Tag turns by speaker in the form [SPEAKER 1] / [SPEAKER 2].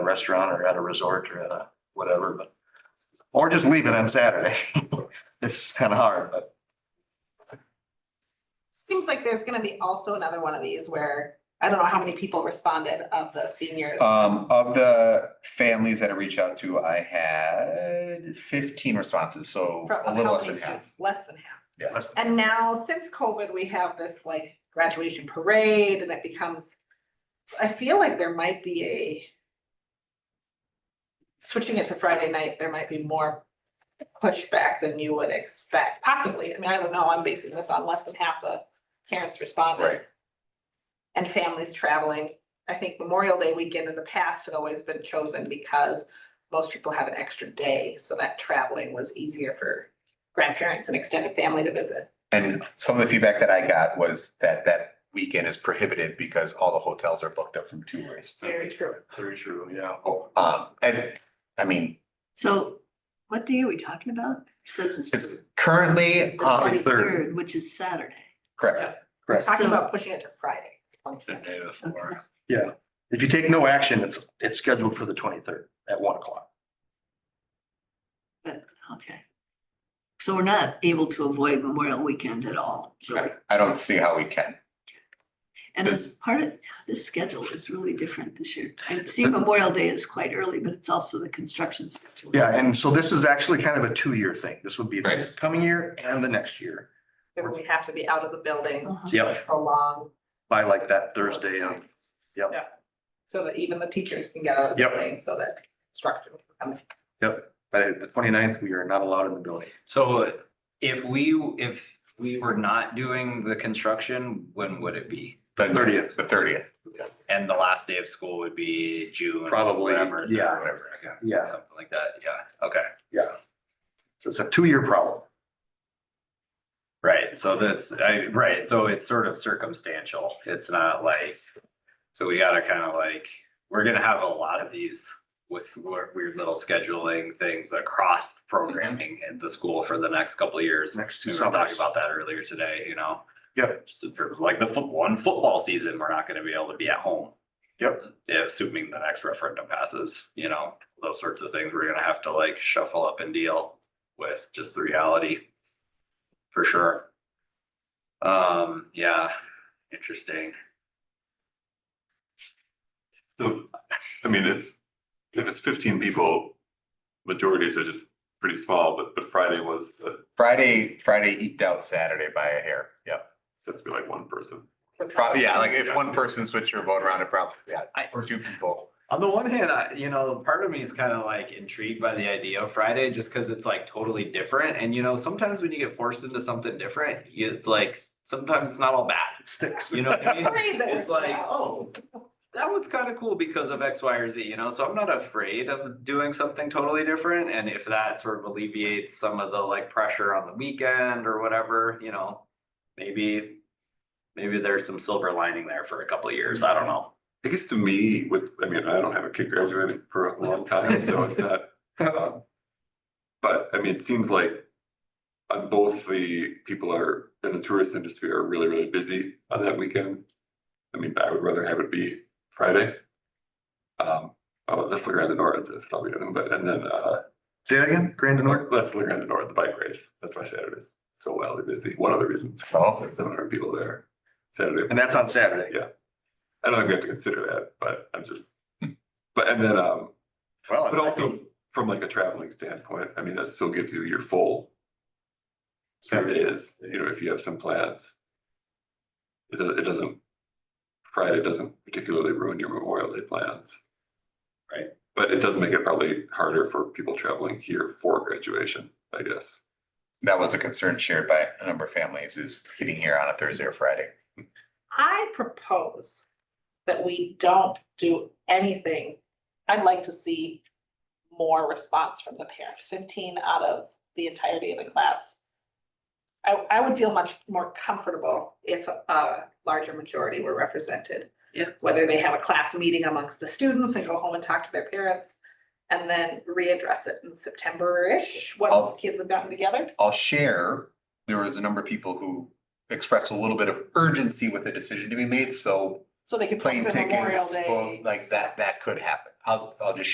[SPEAKER 1] a restaurant or at a resort or at a whatever, but, or just leave it on Saturday. It's kind of hard, but
[SPEAKER 2] Seems like there's gonna be also another one of these where, I don't know how many people responded of the seniors.
[SPEAKER 3] Um, of the families that I reached out to, I had fifteen responses, so
[SPEAKER 2] from-
[SPEAKER 3] a
[SPEAKER 2] of how
[SPEAKER 3] little less
[SPEAKER 2] many
[SPEAKER 3] than half.
[SPEAKER 2] students- Less than half.
[SPEAKER 3] Yeah.
[SPEAKER 1] less
[SPEAKER 2] And now, since COVID, we have this like graduation parade and it becomes, I feel like there might be a switching it to Friday night, there might be more pushback than you would expect, possibly. I mean, I don't know, I'm basing this on less than half the parents responding.
[SPEAKER 3] Right.
[SPEAKER 2] and families traveling. I think Memorial Day weekend in the past had always been chosen because most people have an extra day, so that traveling was easier for grandparents and extended family to visit.
[SPEAKER 3] And some of the feedback that I got was that that weekend is prohibitive because all the hotels are booked up from tourists.
[SPEAKER 2] Very true.
[SPEAKER 1] very true, yeah.
[SPEAKER 3] Oh, Um, and, I mean,
[SPEAKER 4] So what day are we talking about? It Says it's
[SPEAKER 3] it's currently,
[SPEAKER 4] the
[SPEAKER 1] uh,
[SPEAKER 3] um,
[SPEAKER 4] twenty-third, which is Saturday.
[SPEAKER 3] correct,
[SPEAKER 2] Talking
[SPEAKER 4] So-
[SPEAKER 2] about pushing it to Friday, twenty second.
[SPEAKER 1] day
[SPEAKER 4] Okay.
[SPEAKER 1] Yeah, if you take no action, it's, it's scheduled for the twenty-third at one o'clock.
[SPEAKER 4] But, okay. So we're not able to avoid Memorial Weekend at all, really.
[SPEAKER 3] I I don't see how we can.
[SPEAKER 4] And as part of, this schedule is really different this year. I see Memorial Day is quite early, but it's also the construction schedule.
[SPEAKER 1] Yeah, and so this is actually kind of a two-year thing. This would be this
[SPEAKER 3] Right.
[SPEAKER 1] coming year and the next year.
[SPEAKER 2] Because we have to be out of the building
[SPEAKER 4] Uh-huh.
[SPEAKER 1] Yep,
[SPEAKER 2] for long.
[SPEAKER 1] by like that Thursday. um, Yep.
[SPEAKER 2] Yeah. So that even the teachers can get out of the
[SPEAKER 1] Yep.
[SPEAKER 2] building so that structure. can come
[SPEAKER 1] By the 29th, we are not allowed in the building.
[SPEAKER 5] So if we, if we were not doing the construction, when would it be?
[SPEAKER 3] The
[SPEAKER 1] 30th.
[SPEAKER 3] The thirtieth.
[SPEAKER 5] And the last day of school would be June.
[SPEAKER 1] Probably,
[SPEAKER 5] whatever, third,
[SPEAKER 1] yeah.
[SPEAKER 5] whatever, okay,
[SPEAKER 1] Yeah,
[SPEAKER 5] Something like that, yeah, okay,
[SPEAKER 1] so it's a two-year problem.
[SPEAKER 5] right, so that's, I, right, so it's sort of circumstantial, it's not like. So we gotta kind of like, we're gonna have a lot of these with weird little scheduling things across programming at the school for the next couple of years.
[SPEAKER 1] Next two
[SPEAKER 5] We were talking
[SPEAKER 1] summers.
[SPEAKER 5] about that earlier today, you know?
[SPEAKER 1] Yep.
[SPEAKER 5] Just in terms of like the foot, one football season, we're not gonna be able to be at home.
[SPEAKER 1] Yep.
[SPEAKER 5] Yeah, Assuming the next referendum passes, you know, those sorts of things, we're gonna have to like shuffle up and deal with just the reality. For sure. Um, yeah, interesting.
[SPEAKER 6] So, I mean, it's, if it's fifteen people, majorities are just pretty small, but, but Friday was, uh,
[SPEAKER 3] Friday, Friday eked out Saturday by a hair, yep.
[SPEAKER 6] that's be like one person.
[SPEAKER 2] with.
[SPEAKER 3] Pro- yeah, like if one person switched your vote around, it probably, yeah, or two people.
[SPEAKER 5] On the one hand, I, you know, part of me is kind of like intrigued by the idea of Friday just because it's like totally different. And you know, sometimes when you get forced into something different, you- it's like s- sometimes it's not all bad.
[SPEAKER 1] It sticks.
[SPEAKER 5] You know what I mean?
[SPEAKER 2] Parade that
[SPEAKER 5] It's
[SPEAKER 2] we're
[SPEAKER 5] like,
[SPEAKER 2] out.
[SPEAKER 5] oh, that one's kind of cool because of X, Y, or Z, you know? So I'm not afraid of doing something totally different. And if that sort of alleviates some of the like pressure on the weekend or whatever, you know, maybe, maybe there's some silver lining there for a couple of years. I don't know.
[SPEAKER 6] I guess to me, with, I mean, I don't have a kid graduating for a long time, so it's not, um, but, I mean, it seems like on both the people are, in the tourist industry are really, really busy on that weekend. I mean, I would rather have it be Friday. Um, oh, let's look around the north, it's probably, but, and then, uh,
[SPEAKER 1] Say that again, Grandin Orton?
[SPEAKER 6] Let's look around the north, the bike race. That's why Saturday's so wildly busy. One of the reasons,
[SPEAKER 3] Oh.
[SPEAKER 6] seven hundred people there Saturday.
[SPEAKER 1] And that's on Saturday.
[SPEAKER 6] I don't think we have to consider that, but I'm just, but and then, um,
[SPEAKER 1] Well,
[SPEAKER 6] but also from like a traveling standpoint, I mean, that still gives you your full. It
[SPEAKER 1] Saturday.
[SPEAKER 6] is, you know, if you have some plans. It doesn't, it doesn't, Friday doesn't particularly ruin your Memorial Day plans.
[SPEAKER 5] Right.
[SPEAKER 6] But it does make it probably harder for people traveling here for graduation, I guess.
[SPEAKER 3] That was a concern shared by a number of families is getting here on a Thursday or Friday.
[SPEAKER 2] I propose that we don't do anything. I'd like to see more response from the parents, fifteen out of the entirety of the class. I, I would feel much more comfortable if a larger majority were represented.
[SPEAKER 4] Yeah.
[SPEAKER 2] Whether they have a class meeting amongst the students and go home and talk to their parents, and then readdress it in September-ish, once
[SPEAKER 3] I'll-
[SPEAKER 2] kids have gotten together.
[SPEAKER 3] I'll share, there was a number of people who expressed a little bit of urgency with the decision to be made, so
[SPEAKER 2] So they could.
[SPEAKER 3] plane
[SPEAKER 2] book the Memorial
[SPEAKER 3] tickets,
[SPEAKER 2] Day
[SPEAKER 3] well, like that, that could happen. I'll, I'll just